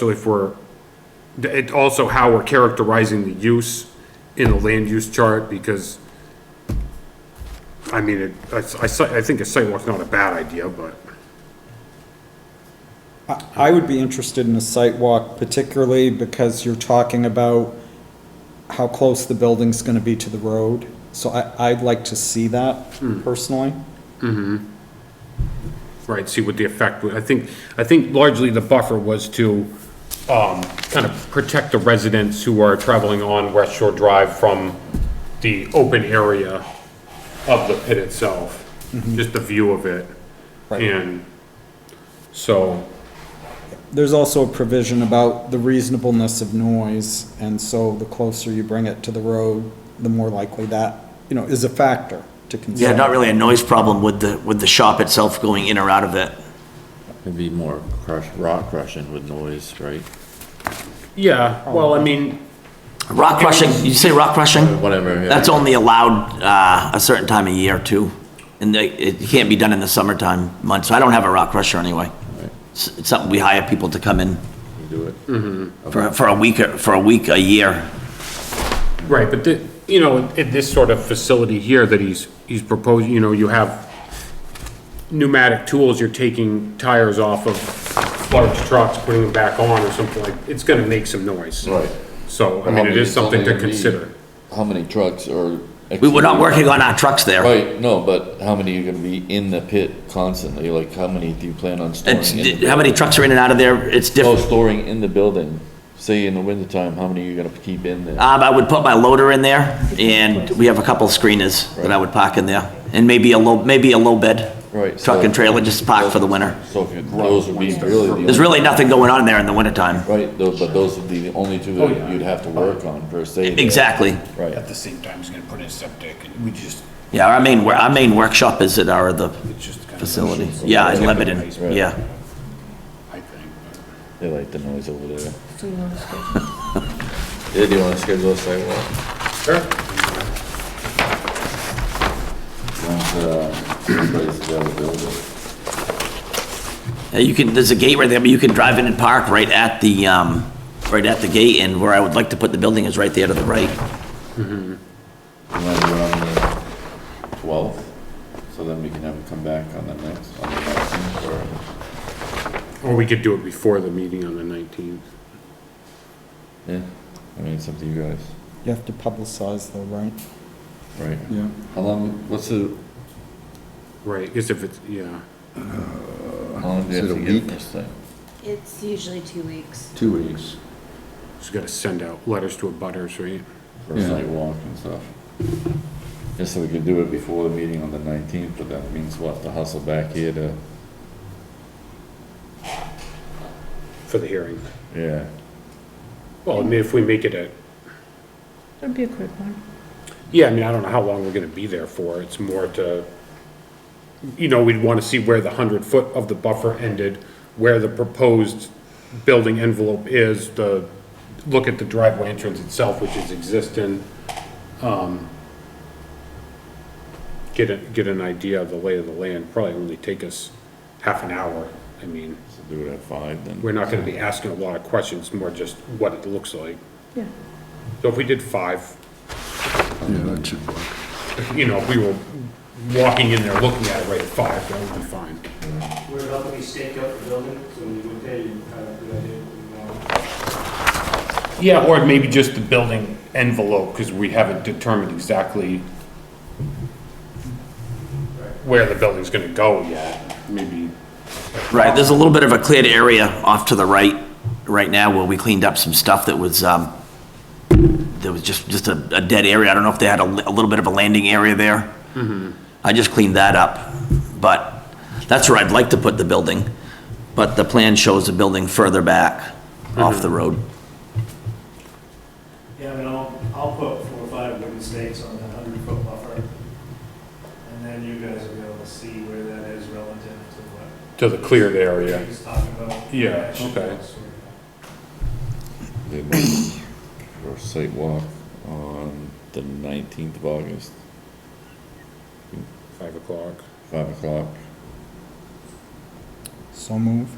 So if we're, it also how we're characterizing the use in the land use chart, because, I mean, it, I, I si- I think a sidewalk's not a bad idea, but, I- I would be interested in a site walk particularly because you're talking about how close the building's gonna be to the road. So I, I'd like to see that Hmm. personally. right, see what the effect, would- I think, I think largely the buffer was to, um, kind of protect the residents who are traveling on West Shore Drive from the open area of the pit itself, just the view of it. Right. And so, There's also a provision about the reasonableness of noise, and so the closer you bring it to the road, the more likely that, you know, is a factor to consider. Yeah, not really a noise problem with the, with the shop itself going in or out of it. It'd be more crush, rock crushing with noise, right? yeah, well, I mean, Rock crushing, you say rock crushing? Whatever, yeah. That's only allowed, uh, a certain time of year too. And they- it can't be done in the summertime months, so I don't have a rock crusher anyway. It's it's something we hire people to come in You do it. for, for a week, or- for a week, a year. Right, but the, you know, in this sort of facility here that he's, he's proposing, you know, you have pneumatic tools, you're taking tires off of large trucks, putting them back on or something like, it's gonna make some noise. Right. So, I mean, it is something to consider. How many trucks or? We were not working on our trucks there. Right, no, but how many are gonna be in the pit constantly? Like, how many do you plan on storing? It's, in the- how many trucks are in and out of there? It's Oh, different. storing in the building. Say in the wintertime, how many are you gonna keep in there? Um, I would put my loader in there and we have a couple of screeners that I would park in there. And maybe a low, maybe a low bed. Right, Truck so- and trailer, just park for the winter. So if you- those would be really the. There's only- really nothing going on there in the wintertime. Right, those, but those would be the only two Oh, that you'd have to work on per se. Exactly. Right. At the same time, he's gonna put in septic, and we just, Yeah, our main, wor- our main workshop is at our, the it's just kind of. facility. Yeah, in Lebanon, Right. yeah. I think. They like the noise over there. Do you want to? Yeah, do you wanna schedule a sidewalk? Sure. Once, uh, everybody's available. Uh, You can, there's a gate right there, but you can drive in and park right at the, um, right at the gate, and where I would like to put the building is right there to the right. You wanna do it on the twelfth, so then we can have it come back on the next, on the next, or, uh, Or we could do it before the meeting on the nineteenth. yeah, I mean, it's up to you guys, You have to publicize though, right? right? Yeah. How long, what's the, Right, because if it's, yeah, how long do you have to get this thing? It's usually two weeks. Two weeks. just gotta send out letters to abutters, right? For a Yeah. sidewalk and stuff? Just so we can do it before the meeting on the nineteenth, but that means we'll have to hustle back here to, For the hearing. yeah. Well, I mean, if we make it a, That'd be a quick one. yeah, I mean, I don't know how long we're gonna be there for, it's more to, you know, we'd wanna see where the hundred foot of the buffer ended, where the proposed building envelope is, the, look at the driveway entrance itself, which is existing, um, get a, get an idea of the lay of the land, probably only take us half an hour, I mean, So do it at five then. we're not gonna be asking a lot of questions, more just what it looks like. Yeah. So if we did five, Yeah, that should work. you know, if we were walking in there looking at it right at five, that would be fine. We're about to be staked out the building, so when you look at it, you have a good idea what we Yeah, want. or maybe just the building envelope, because we haven't determined exactly where the building's gonna go yet, maybe. Right, there's a little bit of a cleared area off to the right, right now, where we cleaned up some stuff that was, um, there was just, just a, a dead area, I don't know if they had a, li- a little bit of a landing area there. I just cleaned that up, but that's where I'd like to put the building, but the plan shows the building further back off the road. Yeah, I mean, I'll, I'll put four or five wooden stakes on that hundred foot buffer. And then you guys will be able to see where that is relative to what To the cleared area. he's talking about. Oh, Yeah, it should okay. be sort of- They might- For a site walk on the nineteenth of August, Five o'clock. five o'clock. So move.